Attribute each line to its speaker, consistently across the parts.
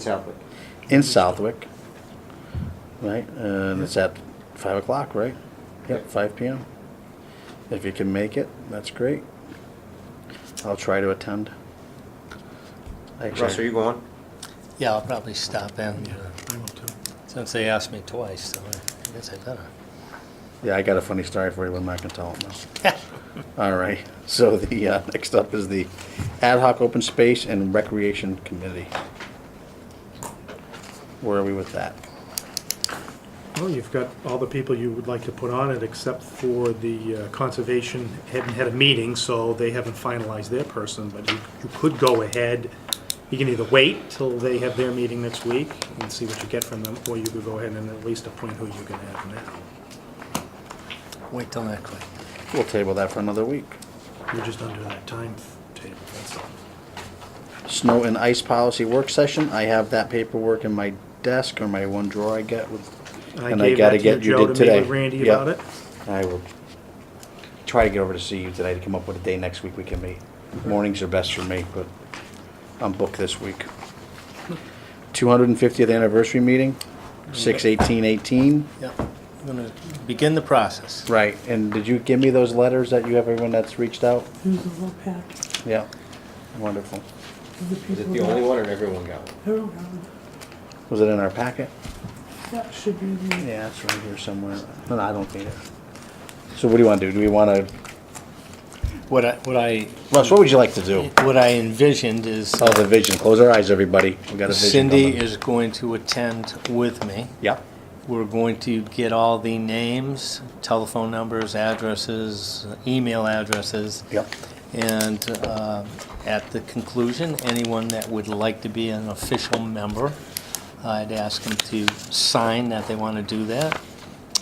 Speaker 1: Southwick.
Speaker 2: in Southwick, right? And it's at five o'clock, right? Yep, five PM. If you can make it, that's great. I'll try to attend. Actually,
Speaker 1: Russ, are you going?
Speaker 3: Yeah, I'll probably stop in, since they asked me twice, so I guess I better.
Speaker 2: Yeah, I got a funny story for you, but I'm not gonna tell it now. All right, so the, uh, next up is the Ad hoc Open Space and Recreation Committee. Where are we with that?
Speaker 4: Well, you've got all the people you would like to put on it, except for the uh, Conservation hadn't had a meeting, so they haven't finalized their person, but you you could go ahead. You can either wait till they have their meeting next week and see what you get from them, or you could go ahead and at least appoint who you're gonna have now.
Speaker 3: Wait till next week.
Speaker 2: We'll table that for another week.
Speaker 4: You're just under that time table, that's all.
Speaker 2: Snow and ice policy work session. I have that paperwork in my desk or my one drawer I get with. and
Speaker 4: gave
Speaker 2: gotta
Speaker 4: that to
Speaker 2: get you did
Speaker 4: Joe to meet
Speaker 2: today.
Speaker 4: with Randy
Speaker 2: Yep.
Speaker 4: about it.
Speaker 2: I will try to get over to see you today to come up with a day next week we can meet. Mornings are best for me, but I'm booked this week. 250th anniversary meeting, 6/18/18.
Speaker 3: Yeah, I'm gonna begin the process.
Speaker 2: Right, and did you give me those letters that you have everyone that's reached out?
Speaker 5: There's a whole pack
Speaker 2: Yeah, wonderful.
Speaker 5: of the people.
Speaker 1: Is it the
Speaker 5: that-
Speaker 1: only one or everyone got one?
Speaker 5: They're around.
Speaker 2: Was it in our packet?
Speaker 5: That should be in there.
Speaker 2: Yeah, it's right here somewhere. No, no, I don't need it. So what do you want to do? Do we want to,
Speaker 3: What I, what I,
Speaker 2: Russ, what would you like to do?
Speaker 3: what I envisioned is
Speaker 2: Oh, the vision. Close our eyes, everybody. We got a vision.
Speaker 3: Cindy
Speaker 2: coming.
Speaker 3: is going to attend with me.
Speaker 2: Yeah.
Speaker 3: We're going to get all the names, telephone numbers, addresses, email addresses.
Speaker 2: Yep.
Speaker 3: And uh, at the conclusion, anyone that would like to be an official member, I'd ask them to sign that they want to do that,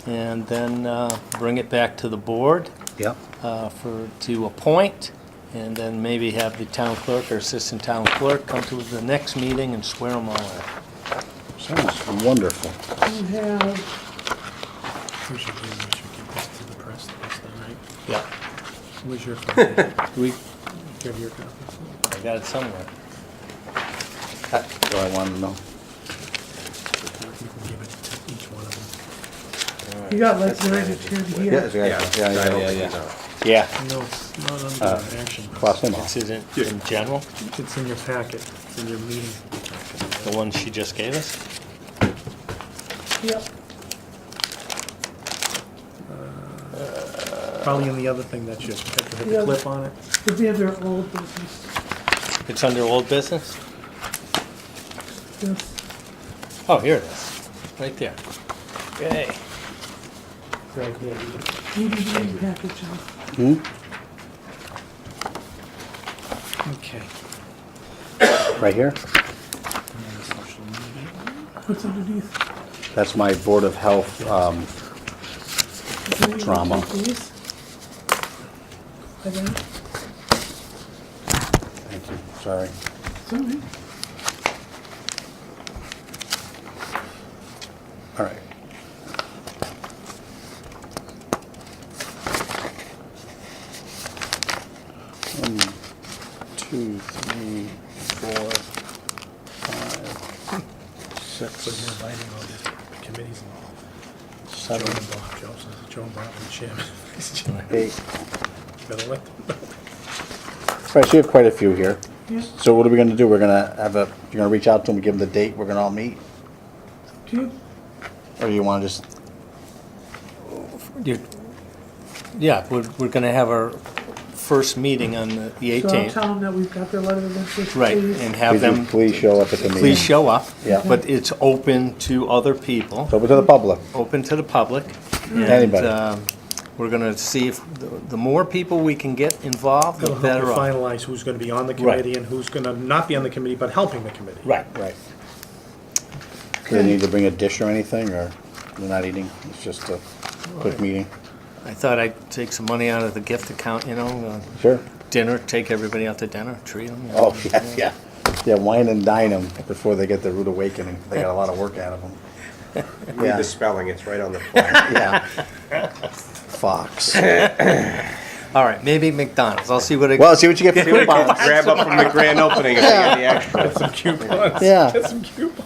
Speaker 3: and then uh, bring it back to the board
Speaker 2: Yep.
Speaker 3: uh, for, to appoint, and then maybe have the town clerk or assistant town clerk come to the next meeting and swear them all in.
Speaker 2: Sounds wonderful.
Speaker 5: You have,
Speaker 4: We should do, we should give this to the press, that's all right.
Speaker 3: Yeah.
Speaker 4: Where's your copy? Do
Speaker 3: We,
Speaker 4: you have your copy?
Speaker 3: I got it somewhere.
Speaker 2: That's what I wanted to know.
Speaker 4: You can give it to each one of them.
Speaker 5: you got like the right attorney here.
Speaker 1: Yeah, yeah, yeah, yeah, yeah.
Speaker 2: Yeah.
Speaker 4: No, it's not
Speaker 2: Uh,
Speaker 4: under an action.
Speaker 2: Cross them
Speaker 3: It's
Speaker 2: off.
Speaker 3: in, in general,
Speaker 4: It's in your packet, it's in your meeting.
Speaker 3: the one she just gave us.
Speaker 5: Yep.
Speaker 4: Uh, Probably in the other thing that you have to
Speaker 5: Yeah.
Speaker 4: the clip on it.
Speaker 5: It'd be under old business.
Speaker 3: It's under old business?
Speaker 5: Yes.
Speaker 3: Oh, here it is, right there. Yay.
Speaker 4: Right here.
Speaker 5: DVD package. huh?
Speaker 4: Okay.
Speaker 2: Right here?
Speaker 5: What's underneath?
Speaker 2: That's my Board of Health, um,
Speaker 5: Is it
Speaker 2: Drama.
Speaker 5: like these? Like that?
Speaker 2: thank you, sorry.
Speaker 5: Something.
Speaker 2: All right. One, two, three, four, five,
Speaker 4: So you're
Speaker 2: six,
Speaker 4: inviting all the committees and all. Joe
Speaker 2: seven,
Speaker 4: and Bob, Joe, so Joe and Bob and Jim.
Speaker 2: eight.
Speaker 4: Better let them
Speaker 2: Right, so you have quite a few here.
Speaker 5: Yeah.
Speaker 2: So what are we gonna do? We're gonna have a, you're gonna reach out to them, give them the date, we're gonna all meet?
Speaker 5: Do you,
Speaker 2: Or you wanna just,
Speaker 3: You- Yeah, we're, we're gonna have our first meeting on the the
Speaker 5: so I'll tell
Speaker 3: 18th.
Speaker 5: them that we've got their letter of interest.
Speaker 3: Right,
Speaker 5: please.
Speaker 3: and have
Speaker 2: please,
Speaker 3: them,
Speaker 2: please show up at the meeting?
Speaker 3: please show up.
Speaker 2: Yeah.
Speaker 3: But it's open to other people,
Speaker 2: It's Open to the public,
Speaker 3: open to the public. and,
Speaker 2: Anybody.
Speaker 3: um, We're gonna see if, the the more people we can get involved, the
Speaker 4: It'll help
Speaker 3: better
Speaker 4: you
Speaker 3: off.
Speaker 4: finalize who's gonna be on the committee and who's gonna not be on the committee, but helping the committee.
Speaker 3: Right.
Speaker 2: right. Do they need to bring a dish or anything, or they're not eating? It's just a quick meeting?
Speaker 3: I thought I'd take some money out of the gift account, you know, uh,
Speaker 2: Sure.
Speaker 3: dinner, take everybody out to dinner, treat them.
Speaker 2: Oh, yeah, yeah. Yeah, wine and dine them before they get their rude awakening. They got a lot of work out of them.
Speaker 1: Read the spelling, it's right on the. front.
Speaker 2: Yeah. Fox.
Speaker 3: All right, maybe McDonald's. I'll see what I.
Speaker 2: Well, see what you get for coupons.
Speaker 1: Grab up from the grand opening if they got the extra.
Speaker 4: Some coupons.
Speaker 2: Yeah.
Speaker 4: Some coupons.